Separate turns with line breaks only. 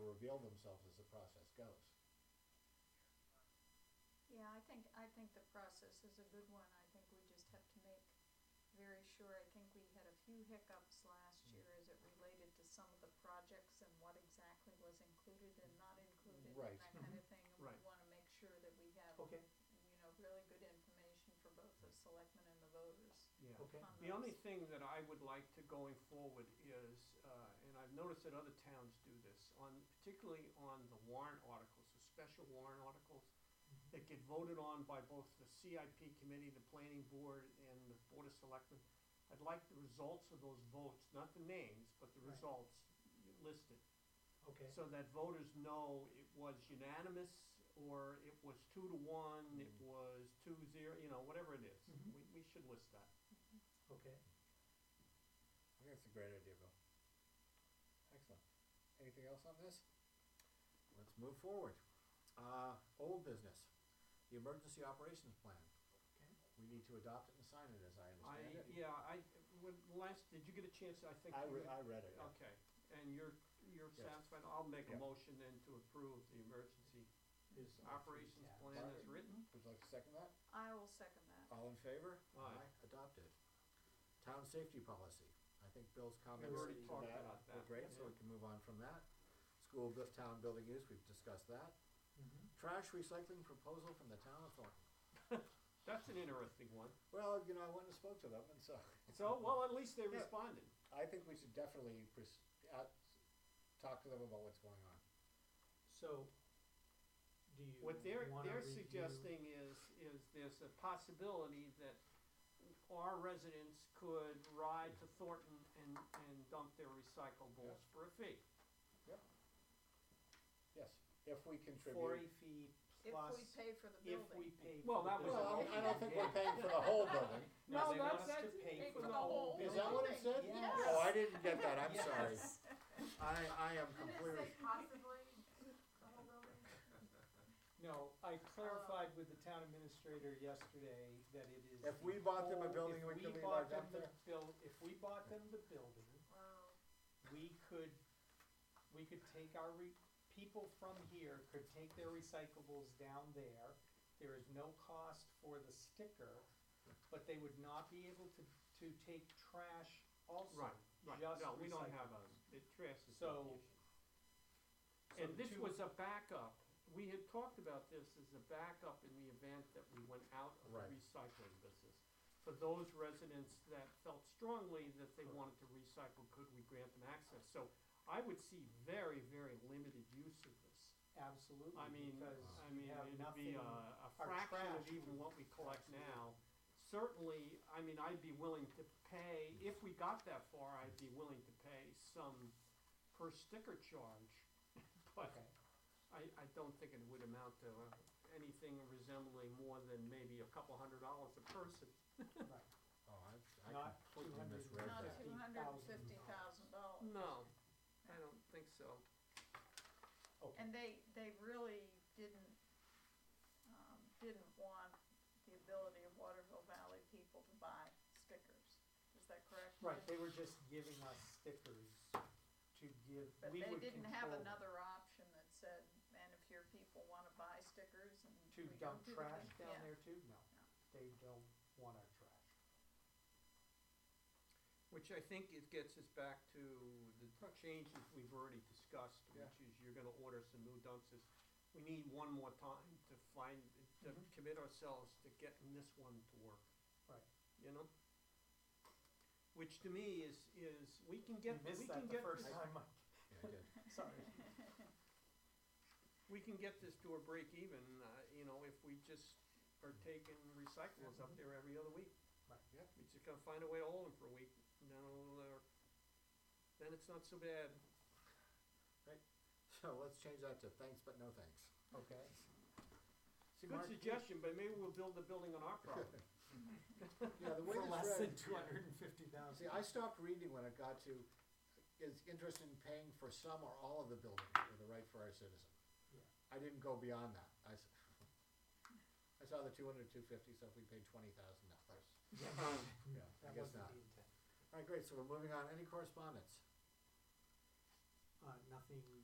reveal themselves as the process goes.
Yeah, I think, I think the process is a good one. I think we just have to make very sure. I think we had a few hiccups last
Mm.
year as it related to some of the projects and what exactly was included and not included
Right.
and that
Mm-hmm.
kind of thing. And we
Right.
wanna make sure that we have, you
Okay,
know, really good information for both the selectmen and the voters
yeah.
Okay.
on those.
The only thing that I would like to going forward is, uh, and I've noticed that other towns do this, on, particularly on the warrant articles, the special warrant articles that get voted on by both the CIP committee, the planning board, and the board of selectmen. I'd like the results of those votes, not the names, but the
Right.
results listed.
Okay,
So that voters know it was unanimous, or it was two to one, it
Mm.
was two zero, you know, whatever it is.
Mhm.
We, we should list that.
okay.
I think that's a great idea, Bill. Excellent. Anything else on this? Let's move forward. Uh, old business, the emergency operations plan.
Okay.
We need to adopt it and sign it, as I
I,
understand it.
yeah, I, when, last, did you get a chance, I think?
I Um,
you
re-
did.
I read it, yeah.
Okay, and you're, you're
Yes.
satisfied, I'll make a
Yeah.
motion then to approve the emergency
Is-
operations
yeah.
plan as written?
Would you like to second that?
I will second that.
Uh,
All in favor?
Aye.
Adopted. Town safety policy. I think Bill's
We've
comments to
already talked
that
about
were
that.
great, so we can move on from that. School, bu- town building use, we've discussed that.
Mhm.
Mm-hmm.
Trash recycling proposal from the town of Thornton.
That's an interesting one.
Well, you know, I went and spoke to them, and so
So, well, at least they
Yeah.
responded.
I think we should definitely pres- out, talk to them about what's going on.
So, do you
What they're,
wanna
they're
review-
suggesting is, is there's a possibility that our residents could ride to Thornton and, and dump their recyclables for a fee.
Yes, if we
forty
contribute.
feet
If
plus,
we pay for the
if we
building.
pay.
Well,
for
that
the
Well,
was-
I don't- I don't think we're
building.
paying for the whole building.
No,
No,
they
that's-
want us to
that's-
pay
pay
for
for
the
the
whole
whole
building.
Is that what it said?
Yes.
Oh, I didn't get that, I'm
Yes.
sorry. I, I am completely,
possibly the whole building?
No, I clarified with the town administrator yesterday that it is.
If
the
we bought them a
whole-
building, we
if
could leave our
bought them
dump
the
there?
buil- if we bought them the building,
Wow.
we could, we could take our re, people from here could take their recyclables down there. There is no cost for the sticker, but they would not be able to, to take trash also.
Right, right,
just
no, we don't have
recyclables.
a, it trash is. not
So-
the issue.
So
And
the
this
two-
was a backup, we had talked about this as a backup in the event that we went out of the
Right.
recycling business. For those residents that felt strongly that they wanted to recycle, could we grant them access? So I would see very, very limited use of this.
Absolutely,
I mean,
because
I
you
mean,
have
it'd
nothing.
be uh, a,
our
a fraction of
trash
even
would-
what we collect
absolutely.
now. Certainly, I mean, I'd be willing to pay, if we got that far, I'd be willing to pay some per sticker charge. But
Okay.
I, I don't think it would amount to uh, anything resembling more than maybe a couple hundred dollars a person.
Right.
oh, I, I
Not
completely
200.
misread
Not
that.
two hundred and fifty thousand dollars.
No, I don't think so.
Okay,
And they, they really didn't, um, didn't want the ability of Waterville Valley people to buy stickers, is that correct?
right, they were just giving us stickers to give,
But
we
they
would
didn't have
control
another option that said, and if your people wanna buy stickers and
To
we don't
dump
do the
trash
thing,"
down
yeah.
there too? No,
No.
they don't want our trash.
Which I think it gets us back to the changes we've already discussed, which is you're gonna order some new dumpsters. We need one more time to find, to
Mhm.
commit ourselves to getting this one to work.
Right.
You know? Which to me is, is, we can get,
You
we
missed
can
that the
get
first
this-
time, Mike.
Yeah, I did.
sorry.
we can get this to a break even, uh, you know, if we just are taking recyclables up there every other week.
Mm-hmm. Right.
Yeah.
We just gotta find a way to hold them for a week, no, uh, then it's not so bad.
So let's change that to thanks but no thanks.
Okay,
See,
Good
Mark,
suggestion, but maybe we'll build the building on our property.
Yeah, the way
for
this
less
read-
than two hundred and fifty thousand.
See, I stopped reading when it got to, is interested in paying for some or all of the building with the right for our citizen.
Yeah.
I didn't go beyond that. I, s- I saw the two hundred, two fifty, so if we paid twenty thousand dollars.
Um,
Yeah, I
That
guess
wasn't
not.
the intent.
All right, great, so we're moving on. Any correspondence?
Uh, nothing